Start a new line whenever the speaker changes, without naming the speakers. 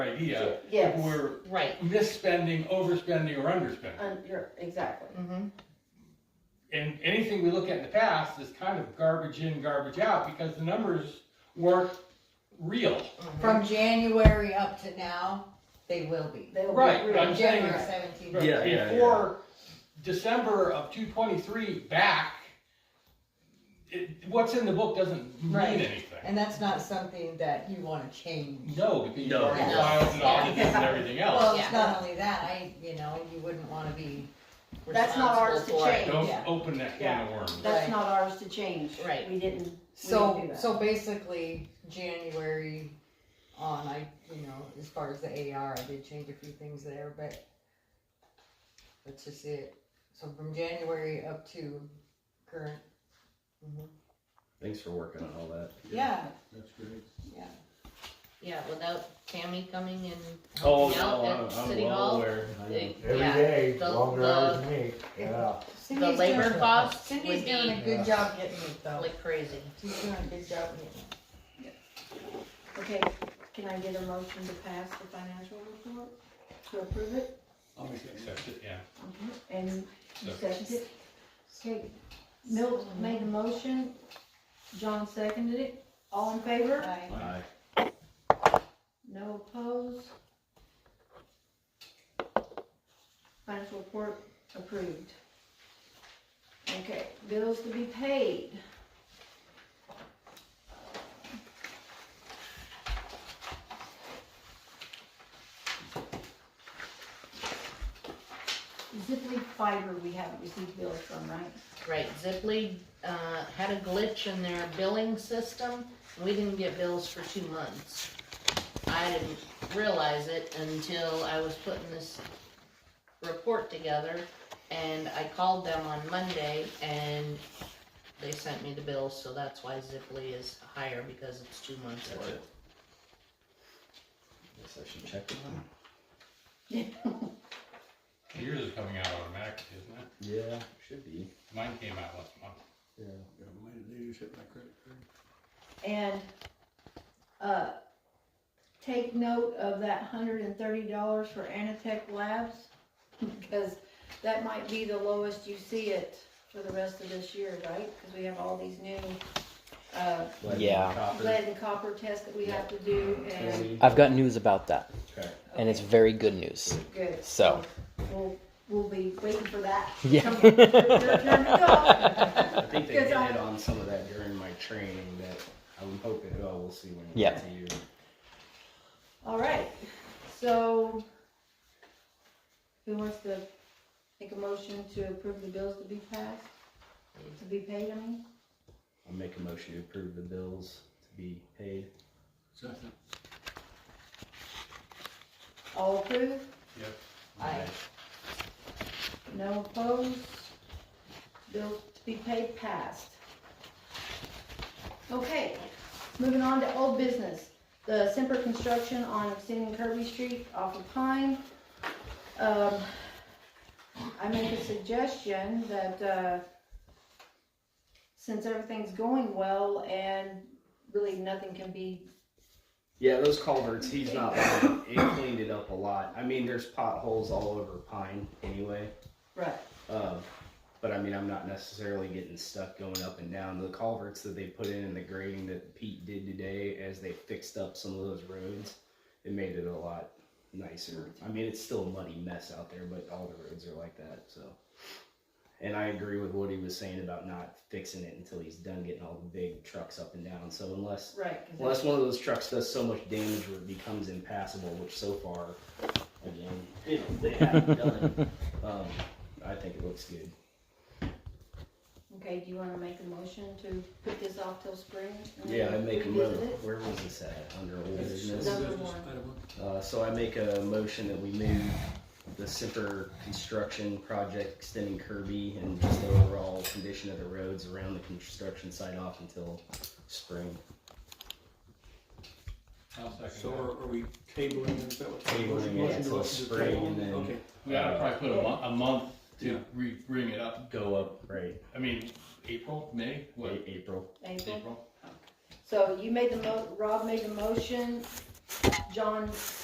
idea if
Yes.
we're
Right.
misspending, overspending, or underspending.
Um, you're, exactly.
Mm-hmm.
And anything we look at in the past is kind of garbage in, garbage out, because the numbers weren't real.
From January up to now, they will be.
They will be
Right,
rude.
I'm saying
January
it's-
seventeenth.
But
Yeah, yeah,
Before December of two twenty-three back, it, what's in the book doesn't mean
Right.
anything.
And that's not something that you wanna change.
No, because you
No.
already
No.
filed and audited and everything
Well,
else.
it's
Yeah.
not only that, I, you know, you wouldn't wanna be.
That's not ours to
responsible for it.
change.
Don't
yeah.
open that can of worms.
That's
Right.
not ours to change.
Right.
We didn't, We
So,
didn't do
so basically, January on, I, you know, as far as the AR, I did change a few things there, but that's just it. So from January up to current,
Thanks for working on all that.
yeah,
That's great.
yeah.
Yeah, without Tammy coming in.
Oh,
helping out
no,
at
I'm, I'm
City
well
Hall.
aware.
Every
They- Yeah,
day,
the-
longer hours than me, yeah.
Cindy's doing-
labor costs
Cindy's
would be-
doing a good job getting it though.
like crazy.
She's doing a good job getting it.
that. Okay, can I get a motion to pass the financial report, to approve it?
I'll make it accept it, yeah.
Mhm. And you
So-
seconded it? Okay, Milt made the motion, John seconded it, all in favor?
I-
Aye.
No opposed? Financial report approved. Okay, bills to be paid. Zipley Fiber, we haven't received bills from, right?
Right, Zipley, uh, had a glitch in their billing system, we didn't get bills for two months. I didn't realize it until I was putting this report together, and I called them on Monday, and they sent me the bills, so that's why Zipley is higher, because it's two months
That's
worth.
it. Guess I should check it out.
Yours is coming out automatically, isn't it?
Yeah, should be.
Mine came out last month.
Yeah.
Yeah, mine, they just hit my credit card.
And, uh, take note of that hundred and thirty dollars for Anatech Labs, because that might be the lowest you see it for the rest of this year, right? Because we have all these new, uh,
Lead,
Yeah.
copper,
lead and copper tests that we have to do, and,
twenty.
I've got news about that,
Okay.
and it's very good news.
good.
So.
We'll, we'll be waiting for that.
Yeah.
Your turn to
I think they
Because
did
I-
it on some of that during my training that I'm hoping, oh, we'll see when it
Yeah.
gets to you.
go. All right, so, who wants to make a motion to approve the bills to be passed? To be paid, I mean?
I'll make a motion to approve the bills to be paid.
Second.
All approve?
Yep.
I-
No opposed? Bill to be paid passed. Okay, moving on to old business. The Semper Construction on extending Kirby Street off of Pine. Um, I make a suggestion that, uh, since everything's going well and really nothing can be,
Yeah, those culverts, he's not lying. It cleaned it up a lot. I mean, there's potholes all over Pine anyway.
right,
Uh, but I mean, I'm not necessarily getting stuck going up and down. The culverts that they put in and the grading that Pete did today, as they fixed up some of those roads, it made it a lot nicer. I mean, it's still a muddy mess out there, but all the roads are like that. So, and I agree with what he was saying about not fixing it until he's done getting all the big trucks up and down. So unless
right. 'cause
Unless one of those trucks does so much damage where it becomes impassable, which so far, again, you know, they haven't done. Um, I think it looks good.
Okay, do you wanna make a motion to put this off till spring? and then
Yeah, I make a mo-
revisit it?
Where was this at? Under old
That's-
business.
Number
that's
one.
item
Uh, so I make a motion that we move the Semper construction project extending Kirby and just the overall condition of the roads around the construction site off until spring.
I'll second
So
that.
are, are we tabling it? Is that what?
Tabling it
Motion to
till
approve the
spring
table?
and then-
Okay,
We ought to probably put a month, a month
Yeah.
to re, bring it up.
Go up, right,
I mean, April, May, what?
A- April.
April?
April?
So you made the mo, Rob made the motion, John